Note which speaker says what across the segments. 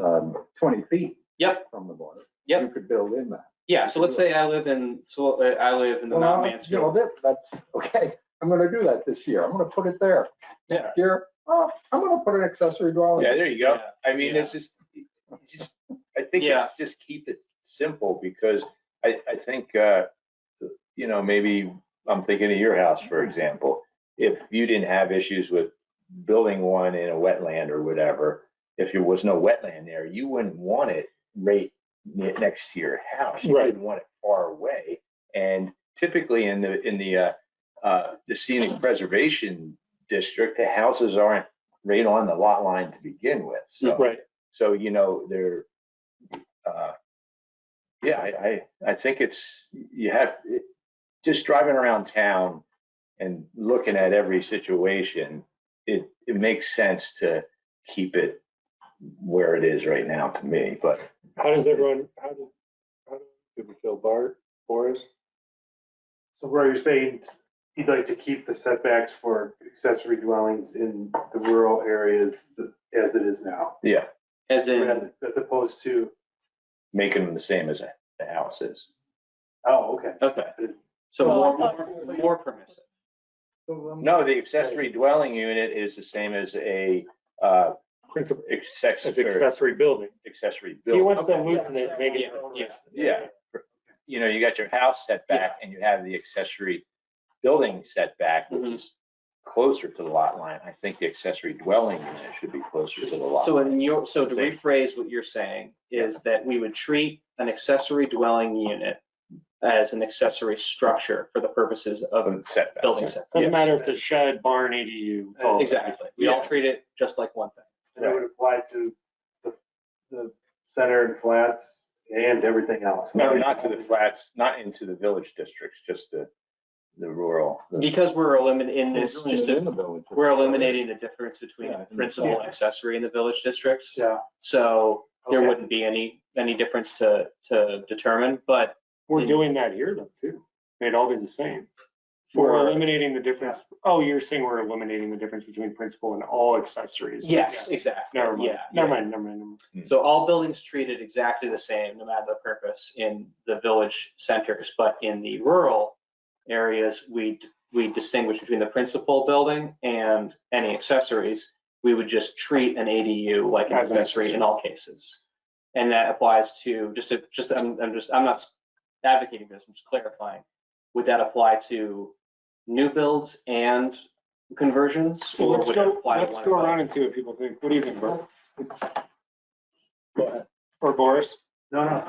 Speaker 1: um, 20 feet.
Speaker 2: Yep.
Speaker 1: From the border.
Speaker 2: Yep.
Speaker 1: You could build in that.
Speaker 2: Yeah, so let's say I live in, so uh, I live in the Mount
Speaker 1: Well, You know,
Speaker 2: Mansfield.
Speaker 1: that, that's, okay, I'm gonna do that this year. I'm gonna put it there.
Speaker 2: Yeah.
Speaker 1: Next Year, oh, I'm gonna put an accessory
Speaker 3: Yeah,
Speaker 1: dwelling.
Speaker 3: there you go.
Speaker 2: Oh, Yeah.
Speaker 3: I mean,
Speaker 2: Yeah.
Speaker 3: it's just, just, I think
Speaker 2: Yeah.
Speaker 3: it's just keep it simple because I, I think, uh, you know, maybe I'm thinking of your house, for example. If you didn't have issues with building one in a wetland or whatever, if there was no wetland there, you wouldn't want it right ne- next to your house. You
Speaker 4: Right.
Speaker 3: wouldn't want it far away. And typically in the, in the, uh, uh, the scenic preservation district, the houses aren't right on the lot line to begin with. So,
Speaker 4: Right,
Speaker 3: so you know, they're, uh, yeah, I, I, I think it's, you have, it- just driving around town and looking at every situation, it, it makes sense to keep it where it is right now to me, but
Speaker 4: how does everyone, how do, how do we feel, Bart, Boris?
Speaker 5: So where you're saying you'd like to keep the setbacks for accessory dwellings in the rural areas th- as it is now,
Speaker 3: yeah,
Speaker 2: As in,
Speaker 5: rather- as opposed to,
Speaker 3: making them the same as the houses.
Speaker 5: oh, okay.
Speaker 2: okay, so
Speaker 1: Well, I
Speaker 2: more, more- more permissive.
Speaker 1: So, um,
Speaker 3: No, the accessory dwelling unit is the same as a, uh,
Speaker 4: Principal, as
Speaker 3: accessory,
Speaker 4: accessory building.
Speaker 3: accessory
Speaker 4: He
Speaker 3: building.
Speaker 4: wants to
Speaker 3: Okay.
Speaker 4: loosen it, make it.
Speaker 2: Yeah, yeah.
Speaker 3: Yeah. you know, you got your house setback and you have the accessory building setback, which
Speaker 2: Mhm.
Speaker 3: is closer to the lot line. I think the accessory dwelling unit should be closer to the lot.
Speaker 2: So
Speaker 3: line.
Speaker 2: in your, so to
Speaker 3: They-
Speaker 2: rephrase what you're saying is that we would treat an accessory dwelling unit as an accessory structure for the purposes of
Speaker 3: Of the setback.
Speaker 2: building set.
Speaker 4: Doesn't matter if it's a shed, barn, ADU. it's all-
Speaker 2: Exactly, we all treat it just like one thing.
Speaker 5: And that would apply to the, the center and flats and everything else.
Speaker 3: No, not to the flats, not into the village districts, just the, the rural. the-
Speaker 2: Because we're eliminating in
Speaker 1: we're
Speaker 2: this,
Speaker 1: doing
Speaker 2: just,
Speaker 1: it
Speaker 2: a-
Speaker 1: in the village.
Speaker 2: we're eliminating the difference between
Speaker 1: Yeah, I think
Speaker 2: principal and accessory in the village districts.
Speaker 5: Yeah.
Speaker 2: So there
Speaker 5: Okay.
Speaker 2: wouldn't be any, any difference to, to determine, but
Speaker 4: We're doing that here though, too. They'd all be the same. We're
Speaker 2: for,
Speaker 4: eliminating the difference, oh, you're saying we're eliminating the difference between principal and all accessories.
Speaker 2: yes,
Speaker 4: Yeah.
Speaker 2: exactly.
Speaker 4: Never mind,
Speaker 2: Yeah,
Speaker 4: never
Speaker 2: yeah.
Speaker 4: mind, never mind, never mind.
Speaker 2: So all buildings treated exactly the same, no matter the purpose, in the village centers, but in the rural areas, we, we distinguish between the principal building and any accessories. We would just treat an ADU like an
Speaker 4: As an
Speaker 2: accessory in all cases. And that applies to, just to, just, I'm, I'm just, I'm not advocating for this, I'm just clarifying. Would that apply to new builds and conversions?
Speaker 4: Well,
Speaker 2: or
Speaker 4: Let's
Speaker 2: would it
Speaker 4: go,
Speaker 2: apply to
Speaker 4: let's
Speaker 2: one
Speaker 4: go
Speaker 2: or the other?
Speaker 4: around and see what people think. What do you think, Bert? Or Boris?
Speaker 5: No, no,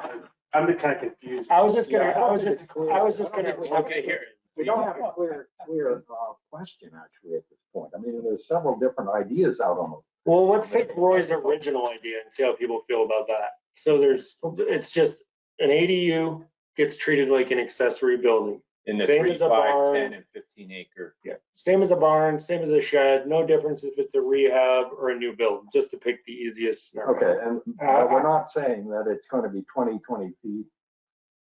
Speaker 5: I'm kind of confused.
Speaker 4: I was just gonna,
Speaker 1: Yeah, I
Speaker 4: I
Speaker 1: don't
Speaker 4: was
Speaker 1: think
Speaker 4: just,
Speaker 1: it's clear.
Speaker 4: I was just
Speaker 1: I don't
Speaker 4: gonna.
Speaker 1: think we have
Speaker 3: Okay, here,
Speaker 1: We don't have a clear, clear uh, question actually at this point. I mean, there's several different ideas out on
Speaker 4: Well, let's take Roy's original idea and see how people feel about that. So there's, it's just, an ADU gets treated like an accessory building.
Speaker 3: in the
Speaker 4: Same
Speaker 3: three,
Speaker 4: as a
Speaker 3: five,
Speaker 4: barn.
Speaker 3: ten, and fifteen acre.
Speaker 4: Same as a barn, same as a shed, no difference if it's a rehab or a new build, just to pick the easiest
Speaker 1: the,
Speaker 4: scenario.
Speaker 1: okay, and but
Speaker 4: Uh,
Speaker 1: we're not saying that it's gonna be 20, 20 feet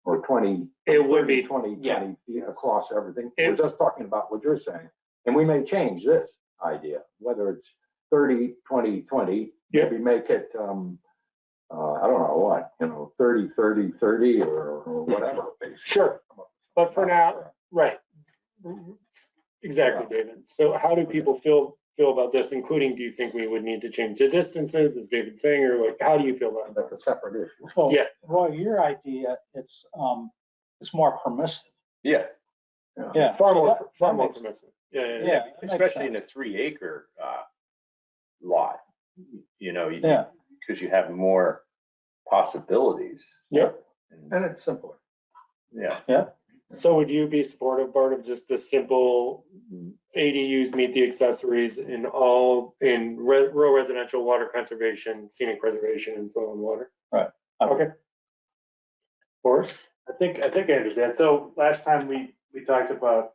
Speaker 1: or 20.
Speaker 4: It would
Speaker 1: 30,
Speaker 4: be,
Speaker 1: 20,
Speaker 2: yeah.
Speaker 1: 20 feet across everything. We're
Speaker 4: It-
Speaker 1: just talking about what you're saying. And we may change this idea, whether it's 30, 20, 20.
Speaker 4: Yeah.
Speaker 1: Maybe make it, um, uh, I don't know what, you know, 30, 30, 30 or or whatever. basically.
Speaker 4: Sure. But for now- right. Exactly, David. So how do people feel, feel about this, including do you think we would need to change the distances, is David saying, or like, how do you feel about it?
Speaker 1: That's a separate issue.
Speaker 6: Well,
Speaker 4: Yeah.
Speaker 6: Roy, your idea, it's, um, it's more permissive.
Speaker 3: Yeah,
Speaker 6: Yeah.
Speaker 4: Far more,
Speaker 6: That-
Speaker 4: far
Speaker 6: that
Speaker 4: more
Speaker 6: makes-
Speaker 4: permissive. Yeah, yeah, yeah.
Speaker 6: Yeah. that makes
Speaker 3: especially
Speaker 6: sense.
Speaker 3: in a three acre, uh, lot, you know, you,
Speaker 6: Yeah,
Speaker 3: because you have more possibilities.
Speaker 4: Yep.
Speaker 3: And-
Speaker 1: And it's simpler.
Speaker 3: Yeah,
Speaker 4: So would you be supportive, Bart, of just the simple ADUs meet the accessories in all, in re- rural residential, water conservation, scenic preservation, and soil and water?
Speaker 6: Right.
Speaker 4: Okay. Boris?
Speaker 5: I think, I think I understand. So last time we, we talked about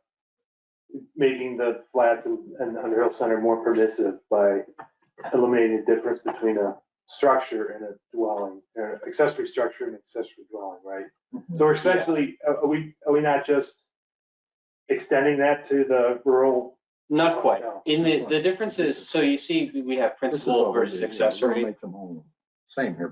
Speaker 5: making the flats and, and Underhill Center more permissive by eliminating the difference between a structure and a dwelling, or accessory structure and accessory dwelling, right? So we're essentially, are are we, are we not just extending that to the rural?
Speaker 2: Not quite.
Speaker 5: No.
Speaker 2: In the, the difference is, so you see, we have
Speaker 1: This is what
Speaker 2: principal
Speaker 1: we
Speaker 2: versus
Speaker 1: do. Yeah, we'll
Speaker 2: accessory.
Speaker 1: make them all. same here,